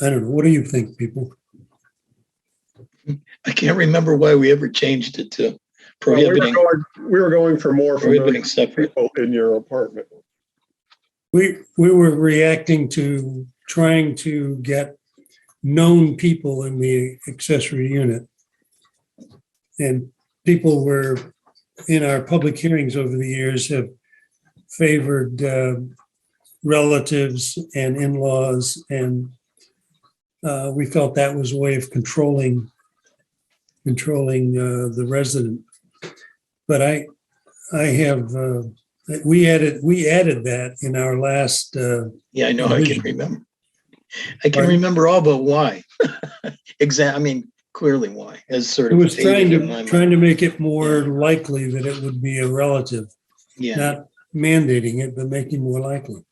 I don't know. What do you think, people? I can't remember why we ever changed it to Well, we were prohibiting, going- We were going for more from prohibiting those separate. people in your apartment. We, we were reacting to trying to get known people in the accessory unit. And people were, in our public hearings over the years, have favored uh, relatives and in-laws and uh, we felt that was a way of controlling, controlling uh, the resident. But I, I have, uh, we added, we added that in our last, uh, Yeah, I know, I Provision. can remember. I can Pardon? remember all but why. Exact, I mean, clearly why, as sort It of. was fading trying in my to, mind. trying to make it more likely that it would be a relative, Yeah, not mandating it, but making more likely.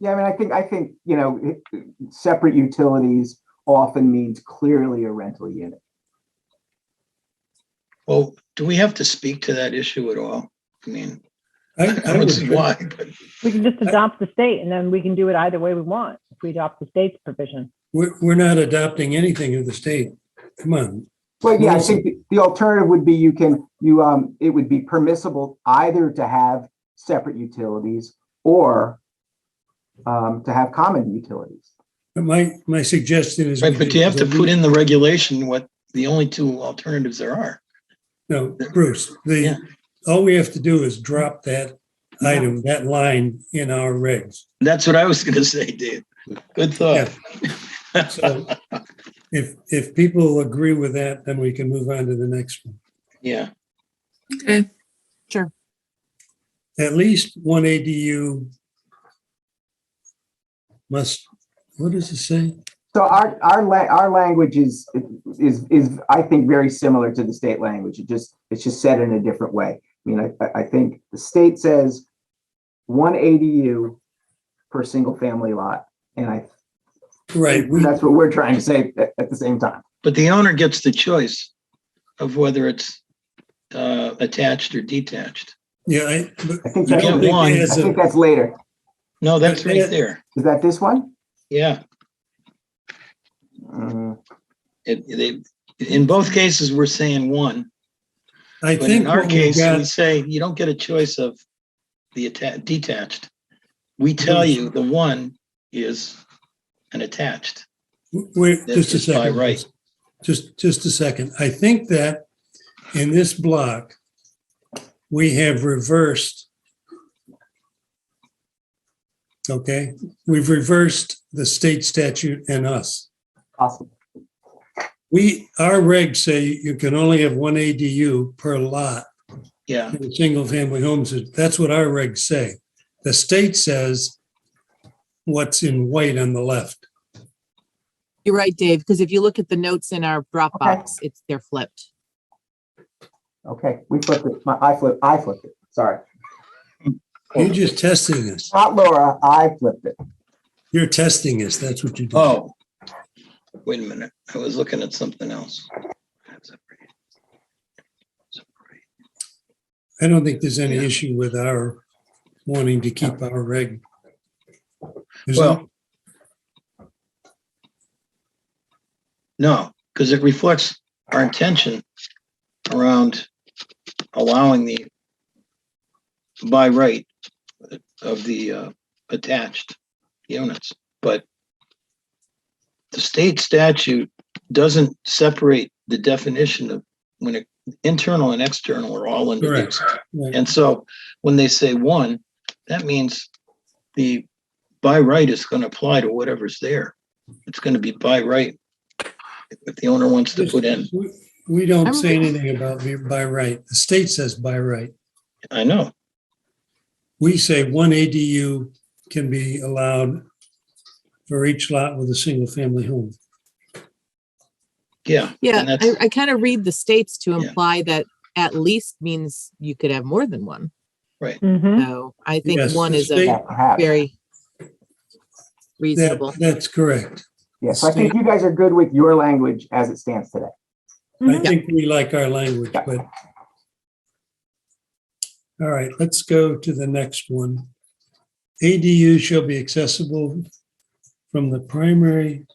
Yeah, I mean, I think, I think, you know, it- it- separate utilities often means clearly a rental unit. well, do we have to speak to that issue at all? I mean, I, I I don't see would, why, but We can Uh, just adopt the state and then we can do it either way we want if we adopt the state's provision. we're, we're not adopting anything of the state. Come on. Well, yeah, I think the- the alternative would be you can, you, um, it would be permissible either to have separate utilities or um, to have common utilities. But my, my suggestion is. right, but you have to put in the regulation what the only two alternatives there are. No, Bruce, Yeah. the, all we have to do is drop that item, that line in our regs. That's what I was gonna say, Dave. Good thought. So if, if people agree with that, then we can move on to the next one. Yeah, Okay, at least one ADU must, what does it say? So our, our, la- our language is, is, is, I think, very similar to the state language. It just, it's just said in a different way. I mean, I- I, I think the state says one ADU per single family lot. And I, Right, we, that's what we're trying to say at, at the same time. but the owner gets the choice of whether it's uh, attached or detached. yeah, I, but I think I that's, get don't I think one. it has think a, that's later. No, that's Yeah. right there. Is that this one? Yeah, Mm, it, they, in both cases, we're saying one. I But in think our what we case, we got, say you don't get a choice of the atta- detached. We tell you the one is an attached. wait, This just a is by second. right. Just, just a second. I think that in this block, we have reversed. Okay, we've reversed the state statute and us. Awesome. We, our regs say you can only have one ADU per lot. Yeah, in single-family homes, that's what our regs say. The state says what's in white on the left. you're right, Dave, because if you look at the notes in our Dropbox, it's, they're flipped. Okay, we flipped it. My, I flipped, I flipped it. Sorry. You're just testing us. Not Laura, I flipped it. You're testing us. That's what you do. oh. Wait a minute, I was looking at something else. I don't think there's any Yeah. issue with our wanting to keep our reg. There's no- Well. No, because it reflects our intention around allowing the by right of the uh, attached units, but the state statute doesn't separate the definition of when it, internal and external are all Correct. introduced. Right. And so when they say one, that means the by right is going to apply to whatever's there. It's going to be by right if the owner wants to put in. We- We don't I'm- say anything about the- by right. The state says by right. I know. We say one ADU can be allowed for each lot with a single-family home. Yeah. Yeah, And I, that's, I kind of read the states to Yeah. imply that at least means you could have more than one. Mhm. So I think Hmm? Yes, one the is state- a Yeah, perhaps. very That- reasonable. That's correct. Yes, I think you guys are good with your language as it stands today. I Mhm. think we like our language, Yeah. but. All right, let's go to the next one. ADU shall be accessible from the primary